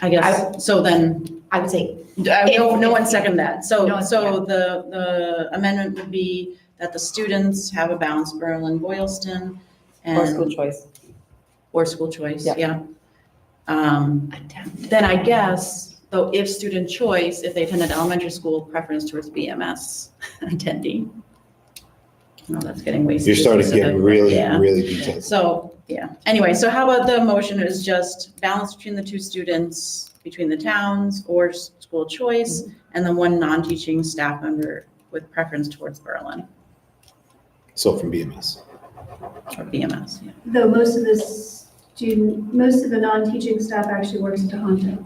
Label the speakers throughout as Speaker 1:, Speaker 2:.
Speaker 1: I guess, so then,
Speaker 2: I would say,
Speaker 1: I- no, no one second that.
Speaker 2: No
Speaker 1: So,
Speaker 2: one-
Speaker 1: so the, the amendment would be that the students have a balance Berlin Boylston
Speaker 3: Or school
Speaker 1: and,
Speaker 3: choice.
Speaker 1: or school choice,
Speaker 3: Yeah.
Speaker 1: yeah. Um, Then I guess, though, if student choice, if they attended elementary school, preference towards BMS attendee. No, that's getting way
Speaker 4: You're starting to get
Speaker 1: specific, but
Speaker 4: really,
Speaker 1: yeah.
Speaker 4: really detailed.
Speaker 1: So, yeah, anyway, so how about the motion is just balance between the two students, between the towns or s- school choice, and then one non-teaching staff member with preference towards Berlin
Speaker 4: So from BMS.
Speaker 1: or BMS, yeah.
Speaker 5: Though most of the student, most of the non-teaching staff actually works at Tohoto.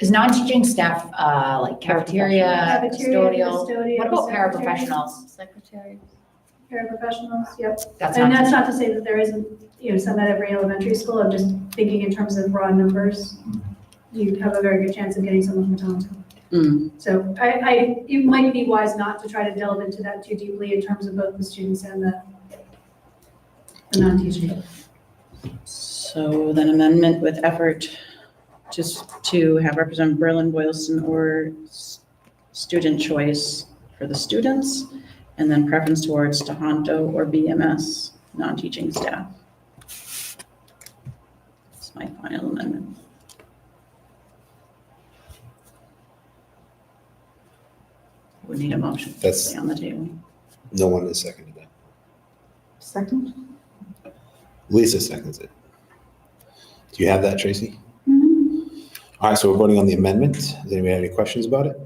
Speaker 2: is non-teaching staff, uh, like cafeteria,
Speaker 5: Cafeteria,
Speaker 2: custodial?
Speaker 5: custodial,
Speaker 2: What about
Speaker 5: secretary,
Speaker 2: paraprofessionals?
Speaker 6: Secretary.
Speaker 5: Paraprofessionals, yep.
Speaker 2: That's
Speaker 5: And
Speaker 2: not,
Speaker 5: that's not to say that there isn't, you know, some at every elementary school, I'm just thinking in terms of raw numbers.
Speaker 2: Mm-hmm.
Speaker 5: You have a very good chance of getting someone from Tohoto.
Speaker 1: Mm,
Speaker 5: So I, I, it might be wise not to try to delve into that too deeply in terms of both the students and the, the non-teaching.
Speaker 1: So then amendment with effort just to have represent Berlin, Boylston, or s- student choice for the students, and then preference towards Tohoto or BMS, non-teaching staff. That's my final amendment. Would need a motion to
Speaker 4: That's-
Speaker 1: stay on the table.
Speaker 4: No one has seconded that.
Speaker 3: Second?
Speaker 4: Lisa seconds it. Do you have that, Tracy?
Speaker 1: Mm-hmm.
Speaker 4: All right, so we're voting on the amendment. Does anybody have any questions about it?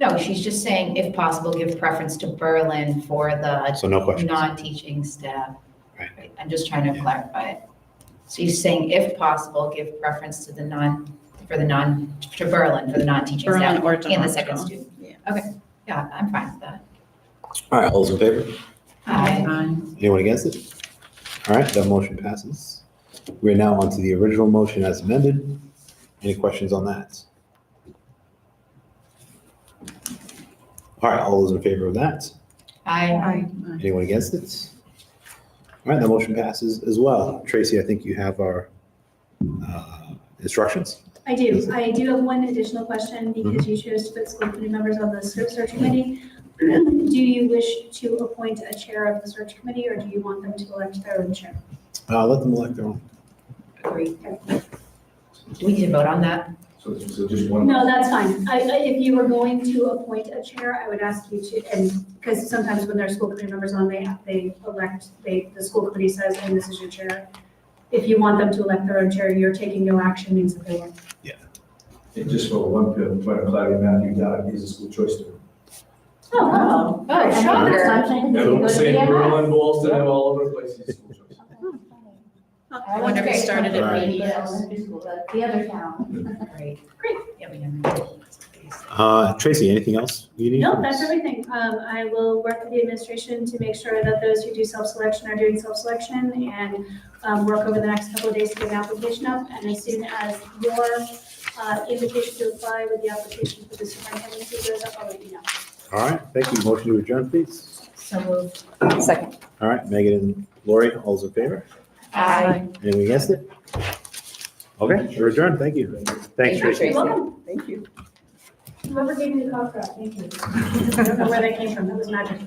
Speaker 2: no, she's just saying if possible, give preference to Berlin for the
Speaker 4: So no questions.
Speaker 2: non-teaching staff.
Speaker 4: Right.
Speaker 2: I'm just trying to
Speaker 4: Yeah.
Speaker 2: clarify it. So you're saying if possible, give preference to the non, for the non, to Berlin, for the non-teaching
Speaker 1: Berlin
Speaker 2: staff
Speaker 1: or
Speaker 2: and the second
Speaker 1: Tohoto.
Speaker 2: student? Okay, yeah, I'm fine with that.
Speaker 4: All right, all those in favor?
Speaker 2: Aye.
Speaker 1: Aye.
Speaker 4: Anyone against it? All right, that motion passes. We're now on to the original motion as amended. Any questions on that? All right, all those in favor of that?
Speaker 2: Aye.
Speaker 4: Anyone against it? All right, the motion passes as well. Tracy, I think you have our uh, instructions.
Speaker 5: I do, I do have one additional question because you chose to put school committee members on the ser- search committee. Do you wish to appoint a chair of the search committee or do you want them to elect their own chair?
Speaker 4: Uh, Let them elect their own.
Speaker 2: Agree. Do we need to vote on that?
Speaker 7: So, so just one.
Speaker 5: No, that's fine. I, I- if you were going to appoint a chair, I would ask you to, and, because sometimes when there are school committee members on, they, they elect, they, the school committee says, and this is your chair. If you want them to elect their own chair, you're taking no action means that they won't.
Speaker 7: And just for one point of clarity, Matthew Dodd is a school choice student.
Speaker 2: Oh, oh, shocker.
Speaker 7: Everyone saying Berlin, Boston, and all over the place, he's a school choice.
Speaker 1: I wonder if it started at
Speaker 4: Right.
Speaker 1: BDS.
Speaker 6: The other town.
Speaker 2: Great. Mm. Great. Yeah, we know.
Speaker 4: Uh, Tracy, anything else you need?
Speaker 5: No, that's everything. Um, I will work with the administration to make sure that those who do self-selection are doing self-selection and, um, work over the next couple of days to get an application up. And as soon as your, uh, invitation to apply with the application for the superintendency goes up, I'll let you know.
Speaker 4: All right, thank you. Motion to adjourn, please.
Speaker 2: So uh, moved.
Speaker 3: Second.
Speaker 4: All right, Megan and Lori, all those in favor?
Speaker 2: Aye.
Speaker 4: Anyone against it? Okay, we're adjourned. Thank you. Thanks,
Speaker 3: Thank you,
Speaker 4: Tracy.
Speaker 3: Tracy.
Speaker 5: welcome.
Speaker 3: Thank you.
Speaker 5: Whoever gave me the cough drop, thank you. I don't know where that came from. That was magic.